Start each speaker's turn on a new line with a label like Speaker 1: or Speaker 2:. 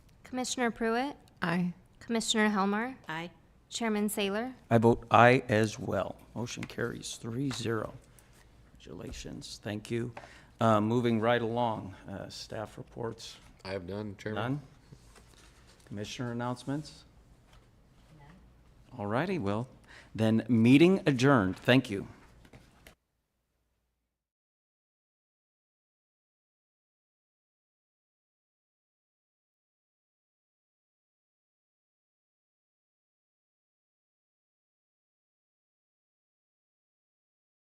Speaker 1: Commissioner Pruitt,
Speaker 2: Aye.
Speaker 1: Commissioner Helmer,
Speaker 3: Aye.
Speaker 1: Chairman Saylor.
Speaker 4: I vote aye as well. Motion carries three zero. Congratulations, thank you. Uh, Moving right along, uh, staff reports,
Speaker 5: I have none, Chairman.
Speaker 4: none? Commissioner announcements? All righty, well, then, meeting adjourned, thank you.